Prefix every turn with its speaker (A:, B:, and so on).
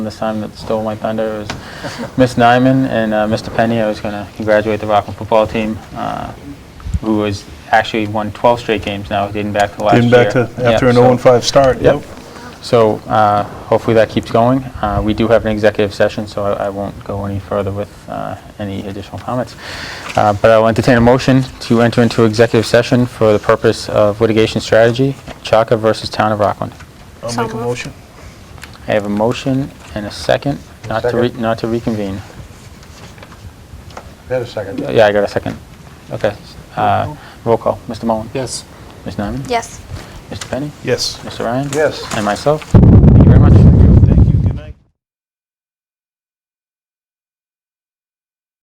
A: This time that stole my thunder was Miss Nyman and uh, Mr. Penny. I was going to congratulate the Rockland football team, uh, who has actually won 12 straight games now, dating back to last
B: Getting
A: year.
B: back to,
A: Yeah,
B: after an
A: so-
B: 0-5 start.
A: Yep. So uh, hopefully that keeps going. Uh, We do have an executive session, so I I won't go any further with uh, any additional comments. Uh, But I'll entertain a motion to enter into executive session for the purpose of litigation strategy, Chaka versus Town of Rockland.
B: I'll
C: So
B: make a
C: moved.
B: motion.
A: I have a motion and a second, not to, re- not to reconvene.
D: Wait a second.
A: Yeah, I got a second. Okay. uh, Roll call. Mr. Mullen?
E: Yes.
A: Ms. Nyman?
C: Yes.
A: Mr. Penny?
B: Yes.
A: Mr. Ryan?
D: Yes.
A: And myself?